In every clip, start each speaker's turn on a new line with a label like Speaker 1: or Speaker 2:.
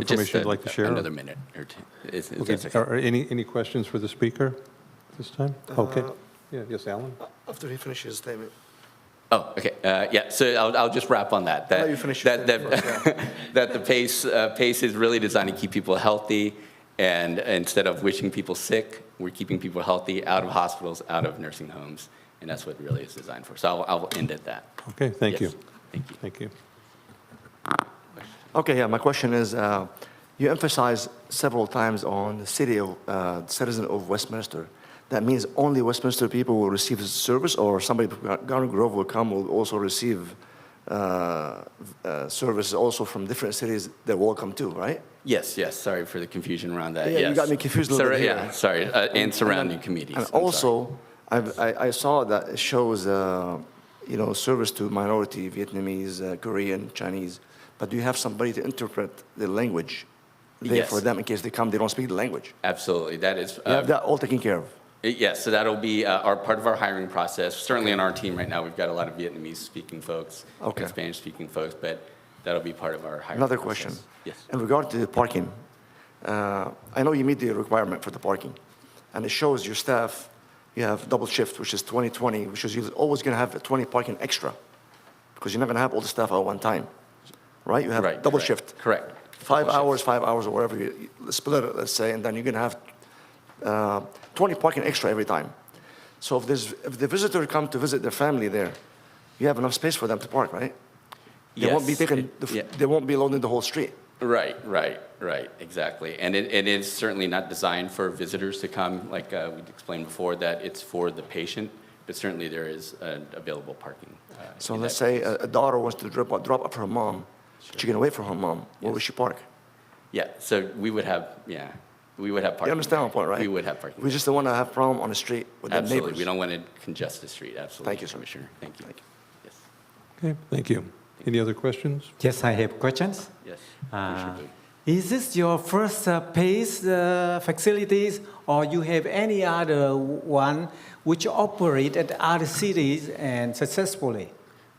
Speaker 1: information you'd
Speaker 2: Just, uh,
Speaker 1: like to share?
Speaker 2: Another minute or two. Is- is
Speaker 1: Okay,
Speaker 2: that okay?
Speaker 1: Are are any, any questions for the speaker this time?
Speaker 2: Uh,
Speaker 1: Okay. Yeah, Yes, Alan?
Speaker 3: After he finishes statement.
Speaker 2: Oh, okay, Uh, yeah, so I'll, I'll just wrap on that.
Speaker 3: let
Speaker 2: That
Speaker 3: you finish your
Speaker 2: That,
Speaker 3: statement
Speaker 2: that, that the PACE, uh, PACE is really designed to keep people healthy, and instead of wishing people sick, we're keeping people healthy, out of hospitals, out of nursing homes, and that's what really it's designed for. So I'll, I'll end at that.
Speaker 1: Okay, thank you.
Speaker 2: Yes, Thank you.
Speaker 1: Thank you.
Speaker 4: Okay, yeah, my question is, uh, you emphasize several times on the city of, uh, citizen of Westminster. That means only Westminster people will receive this service, or somebody from Gar- Garden Grove will come, will also receive uh, uh, services also from different cities they're welcome to, right?
Speaker 2: Yes, yes, sorry for the confusion around that,
Speaker 4: Yeah,
Speaker 2: yes.
Speaker 4: you got me confused a little
Speaker 2: Sorry,
Speaker 4: bit here.
Speaker 2: Yeah, sorry, uh, and surrounding communities.
Speaker 4: And
Speaker 2: I'm sorry.
Speaker 4: also, I've- I, I saw that it shows, uh, you know, service to minority Vietnamese, uh, Korean, Chinese, but do you have somebody to interpret the language there
Speaker 2: Yes. Uh,
Speaker 4: for them in case they come, they don't speak the language?
Speaker 2: Absolutely, that is.
Speaker 4: You
Speaker 2: uh,
Speaker 4: have that all taken care of?
Speaker 2: Yes, so that'll be uh, our, part of our hiring process. Certainly on our team right now, we've got a lot of Vietnamese-speaking folks
Speaker 4: Okay.
Speaker 2: and Spanish-speaking folks, but that'll be part of our hiring
Speaker 4: Another
Speaker 2: process.
Speaker 4: question.
Speaker 2: Yes.
Speaker 4: In regard to the parking, uh, I know you meet the requirement for the parking, and it shows your staff, you have double shift, which is 20/20, which is you're always going to have 20 parking extra, because you're not going to have all the staff at one time, right? You
Speaker 2: Right,
Speaker 4: have double
Speaker 2: correct,
Speaker 4: shift.
Speaker 2: Correct.
Speaker 4: Five
Speaker 2: Double
Speaker 4: hours, five hours, or whatever, you you split it, let's say, and then you're going to have uh, 20 parking extra every time. So if there's, if the visitor come to visit their family there, you have enough space for them to park, right? They won't be
Speaker 2: Yes,
Speaker 4: taking,
Speaker 2: it-
Speaker 4: the f-
Speaker 2: yeah.
Speaker 4: they won't be loading the whole street.
Speaker 2: Right, right, right, exactly. And it, it is certainly not designed for visitors to come, like uh, we explained before, that it's for the patient, but certainly there is uh, available parking. uh,
Speaker 4: So
Speaker 2: in that
Speaker 4: let's say
Speaker 2: case.
Speaker 4: a a daughter wants to drop, drop off her mom, she's gonna wait for her mom, where would she park?
Speaker 2: Yeah, so we would have, yeah, we would have parking.
Speaker 4: You understand my point, right?
Speaker 2: We would have parking.
Speaker 4: We just don't wanna have problem on the street with the neighbors.
Speaker 2: Absolutely, we don't want to congest the street, absolutely.
Speaker 4: Thank you, sir.
Speaker 2: Commissioner, thank you. Yes,
Speaker 1: Okay, thank you. Any other questions?
Speaker 5: Yes, I have questions.
Speaker 2: yes.
Speaker 5: Uh,
Speaker 2: Commissioner Boo.
Speaker 5: Is this your first uh, PACE uh, facilities, or you have any other one which operate at other cities and successfully?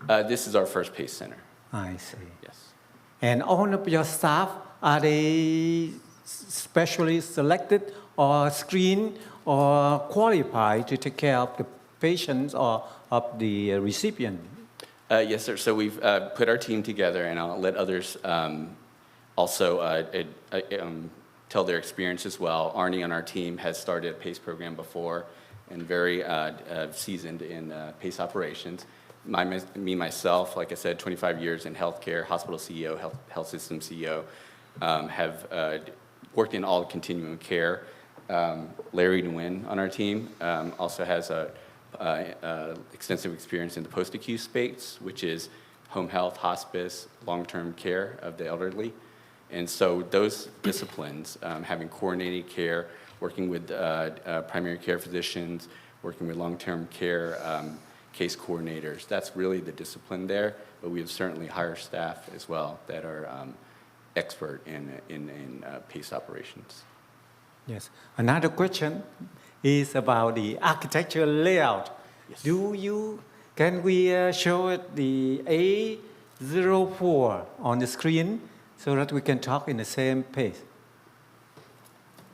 Speaker 2: Uh, This is our first PACE center,
Speaker 5: I see.
Speaker 2: yes.
Speaker 5: And all of your staff, are they specially selected or screened or qualified to take care of the patients or of the recipient?
Speaker 2: Uh, Yes, sir, so we've uh, put our team together, and I'll let others um, also uh, it- uh, um, tell their experience as well. Arnie on our team has started a PACE program before and very uh, uh, seasoned in uh, PACE operations. My- Me, myself, like I said, 25 years in healthcare, hospital CEO, health health system CEO, um, have uh, worked in all continuum of care. Um, Larry Nguyen on our team um, also has a, uh, uh, extensive experience in the post-acute space, which is home health, hospice, long-term care of the elderly. And so those disciplines, um, having coordinated care, working with uh, uh, primary care physicians, working with long-term care um, case coordinators, that's really the discipline there. But we have certainly hired staff as well that are um, expert in, in, in uh, PACE operations.
Speaker 5: Yes. Another question is about the architectural layout. Do you, can we uh, show it the A04 on the screen so that we can talk in the same page?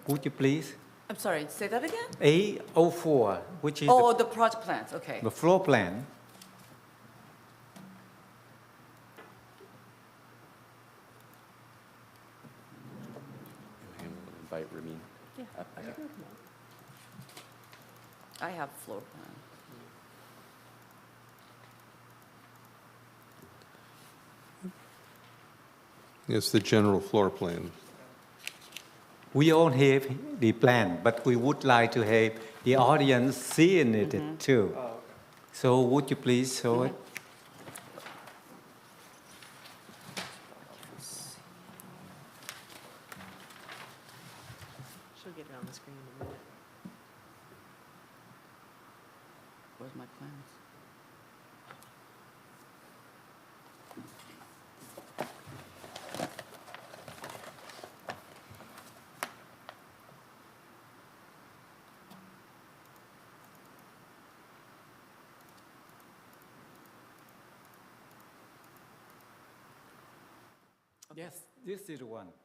Speaker 5: Would you please?
Speaker 6: I'm sorry, say that again?
Speaker 5: A04, which is
Speaker 6: Oh, the project plans, okay.
Speaker 5: the, the floor plan.
Speaker 2: And we'll Invite Ramin. up there.
Speaker 6: I have floor plan.
Speaker 1: It's the general floor plan.
Speaker 5: We all have the plan, but we would like to have the audience seeing it
Speaker 6: Mm-hmm.
Speaker 5: too. So would you please show it?
Speaker 7: She'll get it on the screen in a minute.
Speaker 6: Where's my plans?
Speaker 5: Yes, this is the one.